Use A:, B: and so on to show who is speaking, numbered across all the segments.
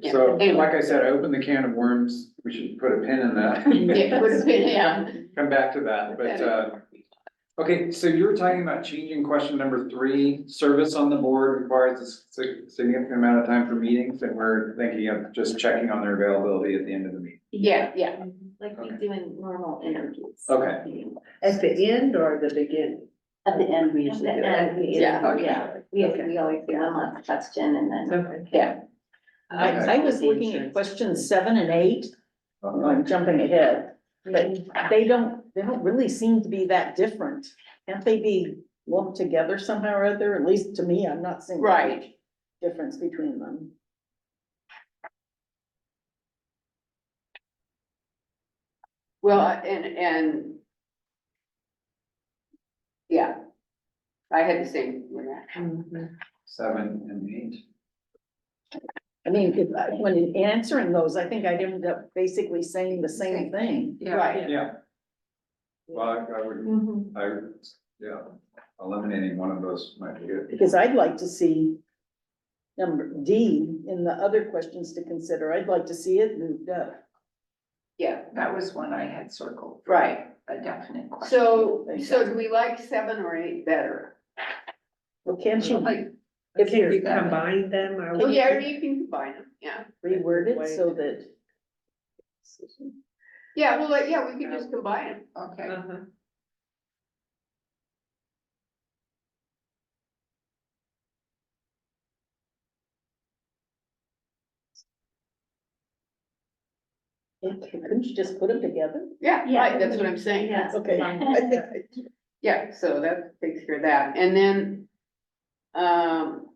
A: Yeah.
B: So,
A: Anyway.
B: like I said, I opened the can of worms, we should put a pin in
A: Yeah,
B: that,
A: would have been, yeah.
B: come back to that, but, uh, okay, so you were talking about changing question number three, service on the board requires a sig- significant amount of time for meetings, and we're thinking of just checking on their availability at the end of the meeting.
A: Yeah, yeah, like we
B: Okay.
A: do in normal interviews.
B: Okay.
C: At the end or the beginning?
D: At the end, we
A: At
D: usually
A: the
D: do it.
A: end, yeah, Oh, yeah, we,
C: Okay.
A: we always do one last question and then,
C: Okay.
A: yeah.
D: I, I was looking at questions seven and eight, Oh, I'm jumping ahead, but they don't, they don't really seem to be that different. Can't they be lumped together somehow or other? At least to me, I'm not seeing. a
A: Right.
D: big Difference between them.
A: Well, and, and. Yeah. I had the same with that.
E: Mm-hmm.
B: Seven and eight.
D: I mean, if I- when in answering those, I think I'd end up basically saying the same thing.
A: Right.
B: Yeah. Well, I- I would,
A: Mm-hmm.
B: I, would, yeah, eliminating one of those might be good.
D: Because I'd like to see number D in the other questions to consider. I'd like to see it moved up.
A: Yeah,
F: That was one I had circled,
A: right.
F: a definite question.
A: So, so do we like seven or eight better?
D: Well, can't you
A: Like,
C: If
D: If you're-
C: you combine them, are
A: oh,
C: we?
A: yeah, or you can combine them, yeah.
D: reword it so that?
A: Yeah, well, like, yeah, we could just combine them.
E: Uh,
F: Okay,
C: Uh-huh.
E: Mm-hmm.
D: Couldn't you just put them together?
A: Yeah,
E: Yeah.
A: right, that's what I'm saying.
E: Yeah.
D: Okay. I think-
A: Yeah, so that takes care of that, and then, um,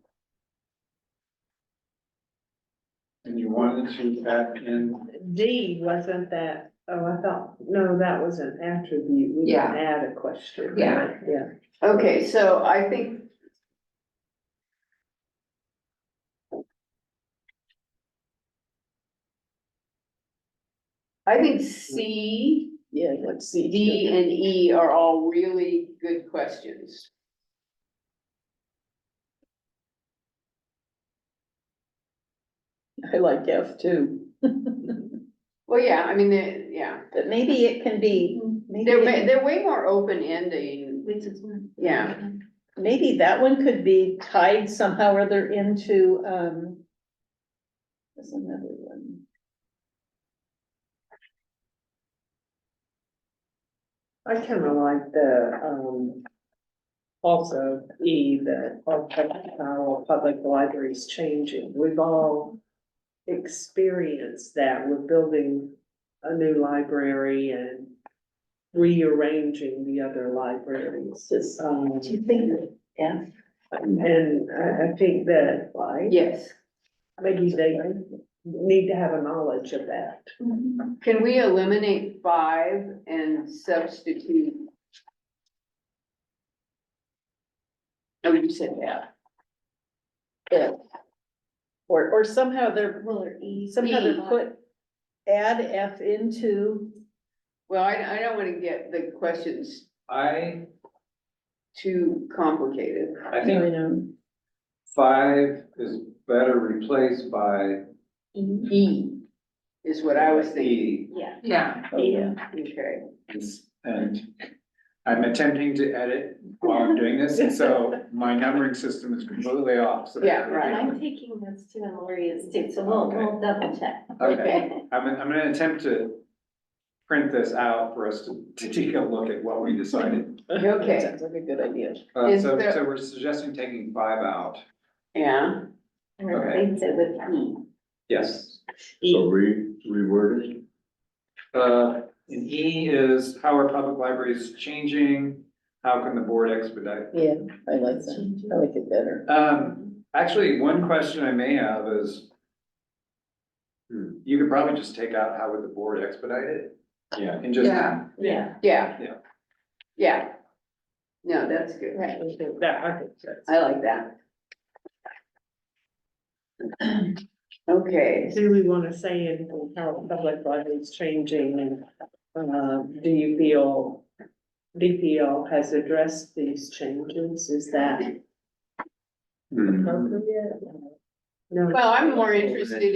B: And you wanted to add in
C: D, wasn't that, oh, I thought, no, that was an attribute, we
F: Yeah.
C: didn't add a question.
F: Yeah.
C: Yeah.
A: okay, so I think. I think C,
D: Yeah, let's see.
A: D, and E are all really good questions.
D: I like F too,
A: Well, yeah, I mean, they yeah,
D: but maybe it can be, maybe,
A: they're, wa-
D: it-
A: they're way more open ending, yeah.
D: maybe that one could be tied somehow or other into, um. There's another one.
C: I kind of like the, um, also E, that our, pub- our public library is changing. We've all experienced that. We're building a new library and rearranging the other libraries.
D: Just-
C: Um,
D: Do you think F?
C: and I, I think that, like,
A: Yes,
C: maybe they need to have a knowledge of that.
A: can we eliminate five and substitute? Oh, you said that.
D: Or, or somehow they're, E, somehow they're put, add F into,
A: Well, I, I don't wanna get the questions
B: I,
A: too complicated.
B: I
D: you
B: think
D: know.
B: five is better replaced by
A: E is what I was thinking,
B: E.
F: yeah,
D: Yeah.
A: okay.
B: And I'm attempting to edit while I'm doing this, so my numbering system is completely off. so-
A: Yeah,
E: And
A: right.
E: I'm taking this too, and Lori is too, so we'll, we'll double check.
B: Okay, I'm, I'm gonna attempt to print this out for us to, to take a look at what we decided.
A: Okay.
D: Sounds like a good idea.
B: Uh,
A: Is
B: so,
A: there-
B: so we're suggesting taking five out.
A: Yeah,
E: And replace it with E.
B: Yes.
G: So re, reworded,
B: Uh, and E is how are public libraries changing? How can the board expedite
D: Yeah, I like that. I like it better.
B: Um, actually, one question I may have is.
G: Hmm.
B: You could probably just take out how would the board expedite it
G: yeah.
B: and just,
F: yeah,
E: Yeah.
A: yeah.
B: Yeah.
A: Yeah. No, that's good,
E: Right.
C: That, I think that's.
A: I like that. Okay,
C: Do we wanna say in how public life is changing and, uh, do you feel DPL has addressed these changes? Is that
G: Hmm.
C: appropriate? No.
A: well, I'm more interested